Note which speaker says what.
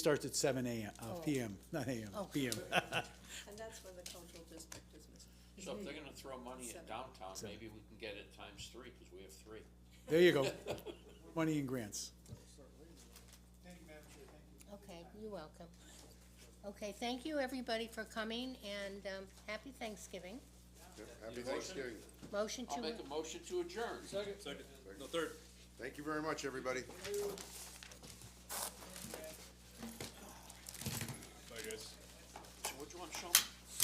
Speaker 1: Starts at seven AM, uh,
Speaker 2: Oh.
Speaker 1: PM, not AM,
Speaker 2: Oh.
Speaker 1: PM.
Speaker 2: And that's when the cultural district is missing.
Speaker 3: So if they're gonna throw money at
Speaker 2: Seven.
Speaker 3: downtown,
Speaker 1: Seven.
Speaker 3: maybe we can get it times three, cause we have three.
Speaker 1: There you go. Money and grants.
Speaker 2: Okay, you're welcome. Okay, thank you, everybody, for coming, and um, happy Thanksgiving.
Speaker 4: Happy Thanksgiving.
Speaker 2: Motion
Speaker 3: I'll
Speaker 2: to,
Speaker 3: make a motion to adjourn.
Speaker 5: Second, no, third.
Speaker 4: Thank you very much, everybody.
Speaker 5: Bye, guys.
Speaker 3: Which one, Sean?